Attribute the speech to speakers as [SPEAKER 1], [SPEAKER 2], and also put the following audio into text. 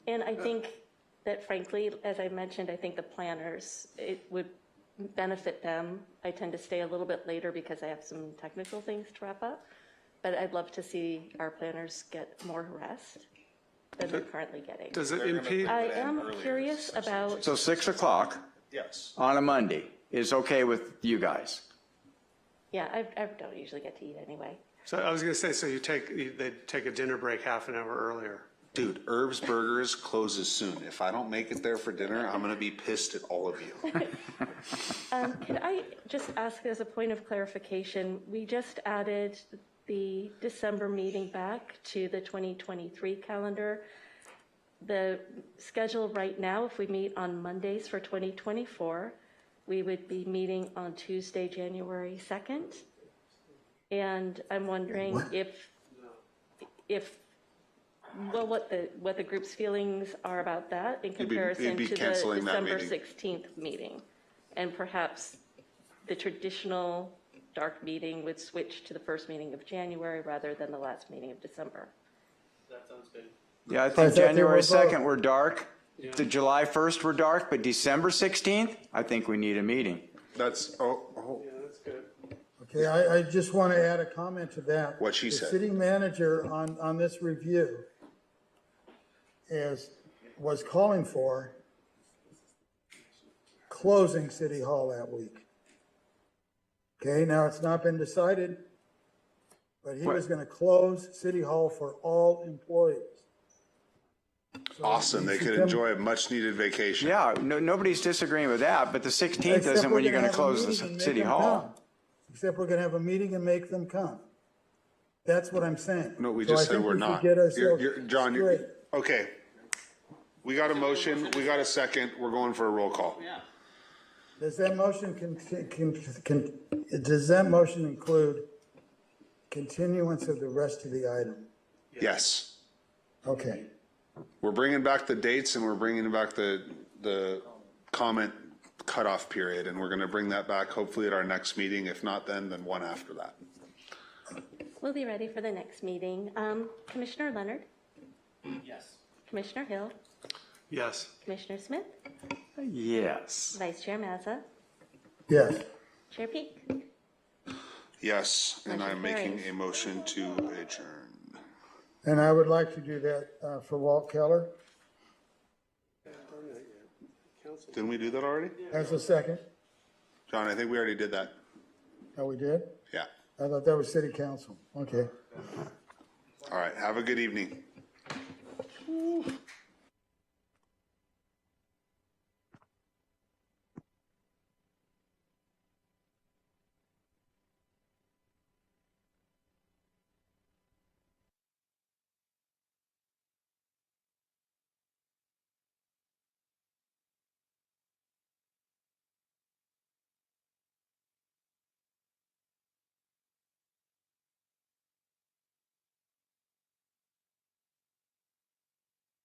[SPEAKER 1] And I think that frankly, as I mentioned, I think the planners, it would benefit them. I tend to stay a little bit later because I have some technical things to wrap up. But I'd love to see our planners get more rest than they're currently getting.
[SPEAKER 2] Does it impede?
[SPEAKER 1] I
[SPEAKER 3] Would end
[SPEAKER 1] am
[SPEAKER 3] earlier.
[SPEAKER 1] curious about,
[SPEAKER 4] So 6 o'clock
[SPEAKER 3] Yes.
[SPEAKER 4] on a Monday is okay with you guys?
[SPEAKER 1] yeah, I, I don't usually get to eat anyway.
[SPEAKER 2] So I was going to say, so you take, you- they take a dinner break half an hour earlier.
[SPEAKER 3] Dude, Herb's Burgers closes soon. If I don't make it there for dinner, I'm gonna be pissed at all of you.
[SPEAKER 1] Um, Could I just ask as a point of clarification, we just added the December meeting back to the 2023 calendar. The schedule right now, if we meet on Mondays for 2024, we would be meeting on Tuesday, January 2nd. And I'm wondering if, if, well, what the, what the group's feelings are about that in
[SPEAKER 3] You'd be- you'd
[SPEAKER 1] comparison
[SPEAKER 3] be
[SPEAKER 1] to the
[SPEAKER 3] canceling that
[SPEAKER 1] December
[SPEAKER 3] meeting.
[SPEAKER 1] 16th meeting. And perhaps the traditional dark meeting would switch to the first meeting of January rather than the last meeting of December.
[SPEAKER 4] Yeah, I
[SPEAKER 5] I
[SPEAKER 4] think
[SPEAKER 5] thought they
[SPEAKER 4] January
[SPEAKER 5] were both.
[SPEAKER 4] 2nd, we're dark. The July 1st, we're dark, but December 16th, I think we need a meeting.
[SPEAKER 3] That's, oh, oh,
[SPEAKER 2] that's good.
[SPEAKER 5] Okay, I, I just want to add a comment to that.
[SPEAKER 3] What she said.
[SPEAKER 5] The city manager on, on this review is, was calling for closing City Hall that week. Okay, now it's not been decided, but he was going to close City Hall for all employees.
[SPEAKER 3] awesome. They could enjoy a much-needed vacation.
[SPEAKER 4] Yeah, no, nobody's disagreeing with that, but the 16th
[SPEAKER 5] Except
[SPEAKER 4] isn't
[SPEAKER 5] we're
[SPEAKER 4] when you're going to
[SPEAKER 5] have a
[SPEAKER 4] close the
[SPEAKER 5] meeting and
[SPEAKER 4] ci-
[SPEAKER 5] make
[SPEAKER 4] city
[SPEAKER 5] them
[SPEAKER 4] hall.
[SPEAKER 5] come. Except we're going to have a meeting and make them come. That's what I'm saying.
[SPEAKER 3] No, we
[SPEAKER 5] So I
[SPEAKER 3] just said
[SPEAKER 5] think
[SPEAKER 3] we're
[SPEAKER 5] should
[SPEAKER 3] not.
[SPEAKER 5] Get
[SPEAKER 3] You're-
[SPEAKER 5] ourselves
[SPEAKER 3] you're- John, you're-
[SPEAKER 5] straight.
[SPEAKER 3] okay. We got a motion, we got a second, we're going for a roll call.
[SPEAKER 5] Does that motion con, con, con, does that motion include continuance of the rest of the item?
[SPEAKER 3] Yes.
[SPEAKER 5] Okay,
[SPEAKER 3] We're bringing back the dates and we're bringing back the, the comment cutoff period. And we're gonna bring that back hopefully at our next meeting. If not then, then one after that.
[SPEAKER 1] We'll be ready for the next meeting. Um, Commissioner Leonard?
[SPEAKER 6] Yes.
[SPEAKER 1] Commissioner Hill?
[SPEAKER 2] Yes.
[SPEAKER 1] Commissioner Smith?
[SPEAKER 4] Yes.
[SPEAKER 1] Vice Chair Mazza?
[SPEAKER 5] yes.
[SPEAKER 1] Chair Peak?
[SPEAKER 3] Yes, and
[SPEAKER 1] Motion
[SPEAKER 3] I'm making
[SPEAKER 1] carries.
[SPEAKER 3] a motion to adjourn.
[SPEAKER 5] And I would like to do that, uh, for Walt Keller
[SPEAKER 3] Didn't we do that already?
[SPEAKER 5] as a second.
[SPEAKER 3] John, I think we already did that.
[SPEAKER 5] Oh, we did?
[SPEAKER 3] Yeah.
[SPEAKER 5] I thought that was city council. Okay.
[SPEAKER 3] All right. Have a good evening.